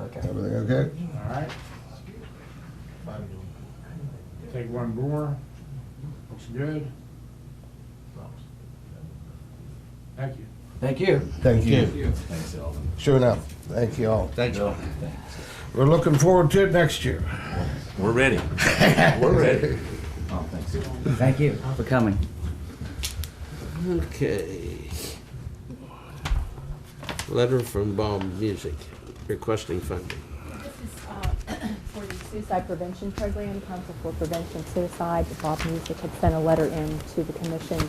okay. Everything okay? All right. Take one more. Looks good. Thank you. Thank you. Thank you. you. Thanks, Alvin. Sure enough. Thank you all. Thanks, Alvin. We're looking forward to it next year. We're ready. We're ready. Oh, thanks. Thank you for coming. Okay. Letter from Bob Music requesting funding. This is uh, for the suicide prevention program, Council for Prevention of Suicide. Bob Music had sent a letter in to the commission.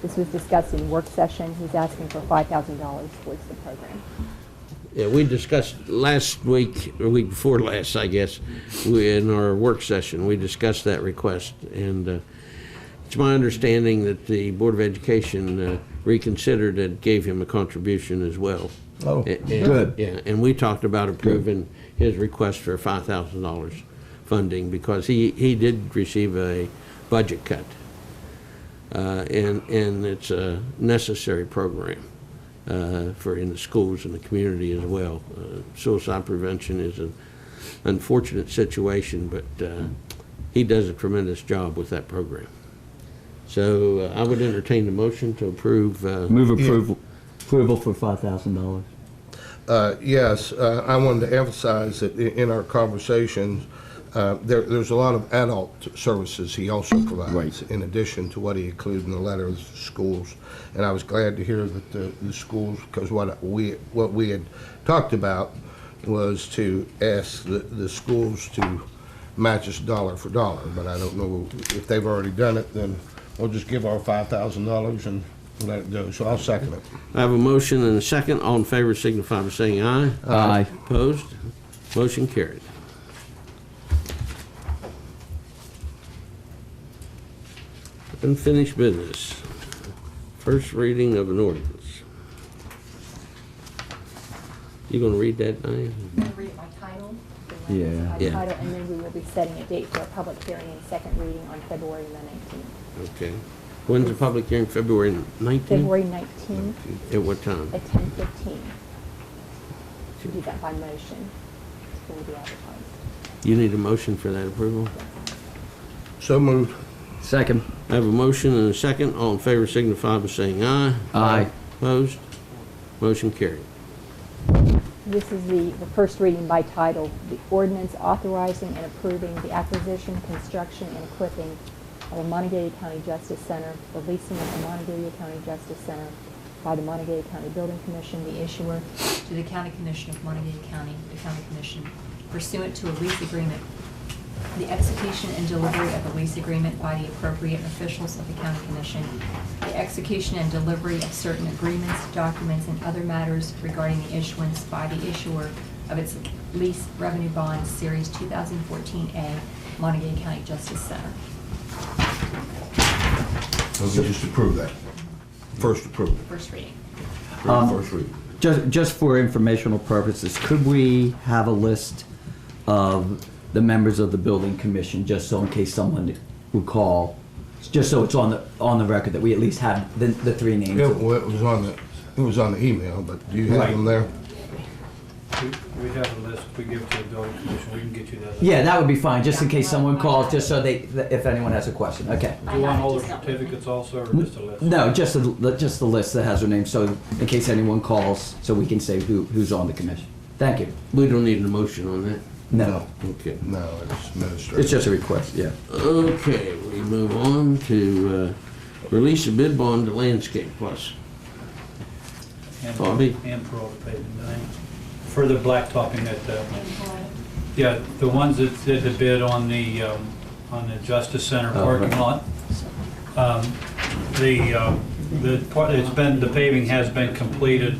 This was discussed in work session. He's asking for $5,000 towards the program. Yeah, we discussed last week, or week before last, I guess, we, in our work session, we discussed that request. And uh, it's my understanding that the Board of Education uh, reconsidered and gave him a contribution as well. Oh, A- and- good. Yeah, and we talked about approving his request for five thousand dollars funding because he, he did receive a budget cut. Uh, and, and it's a necessary program, uh, for in the schools and the community as well. Uh, Suicide prevention is an unfortunate situation, but, uh, he does a tremendous job with that program. So uh, I would entertain the motion to approve, uh, Move approval, approval for five thousand dollars. Uh, Yes, uh, I wanted to emphasize that i- in our conversations, uh, there- there's a lot of adult services he also provides, in addition to what he included in the letter of schools. And I was glad to hear that the the schools, because what we, what we had talked about was to ask the the schools to match us dollar for dollar, but I don't know if they've already done it, then we'll just give our $5,000 and let it go. So I'll second it. I have a motion and a second. All in favor signify by saying aye. Uh, Aye. Opposed? Motion carried. Unfinished business. First reading of an ordinance. You gonna read that, Diane? I'm going to read it by title. the way it's Yeah. by Yeah. title, And then we will be setting a date for a public hearing and second reading on February the 19th. Okay. When's the public hearing? February nineteenth? February 19th At what time? at 10:15. To do that by motion. It's going to be advertised. You need a motion for that approval? So moved. Second. I have a motion and a second. All in favor signify by saying aye. Aye. Opposed? Motion carried. This is the, the first reading by title, the ordinance authorizing and approving the acquisition, construction, and equipping of a Montague County Justice Center, the leasing of the Montague County Justice Center by the Montague County Building Commission, the issuer, to the County Commission of Montague County, the County Commission pursuant to a lease agreement. The execution and delivery of the lease agreement by the appropriate officials of the County Commission. The execution and delivery of certain agreements, documents, and other matters regarding the issuance by the issuer of its lease revenue bond, Series 2014A, Montague County Justice Center. So we just approve that. First approval. First reading. Um, First reading. Just, just for informational purposes, could we have a list of the members of the building commission, just so in case someone would call? Just so it's on the, on the record that we at least have the, the three names. Yeah, well, it was on the, it was on the email, but do you have them there? We- We have a list we give to the building commission, we can get you that. Yeah, that would be fine, just in case someone calls, just so they, if anyone has a question, okay. Do you want all the certificates also, or just a list? No, just the, just the list that has their name, so in case anyone calls, so we can say who, who's on the commission. Thank you. We don't need a motion on that. No, Okay. No, it's administrative. it's just a request, yeah. Okay, we move on to uh, release a bid bond to Landscape Plus. And- Bobby? And for all the paving, I think. for the blacktopping at the, yeah, the ones that did the bid on the, um, on the Justice Center Oh, parking right. lot. um, The, um, the, part- it's been, the paving has been completed,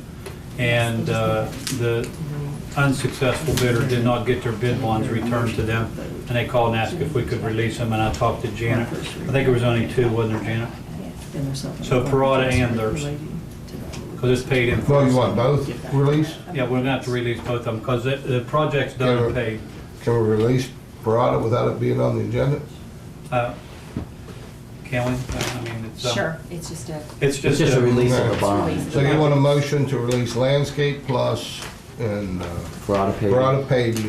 and uh, the unsuccessful bidder did not get their bid bonds returned to them, and they called and asked if we could release them, and I talked to Janet. I think it was only two, wasn't there, Janet? So Parada and theirs. Because it's paid in full. Well, you want both released? Yeah, we're gonna have to release both of them, because the, the project's done and paid. Can we release Parada without it being on the agenda? Uh, Can we? I mean, it's. um, Sure, it's just a, It's It's just. just a uh, release of a bond. So you want a motion to release Landscape Plus and uh, Parada paving. Parada Paving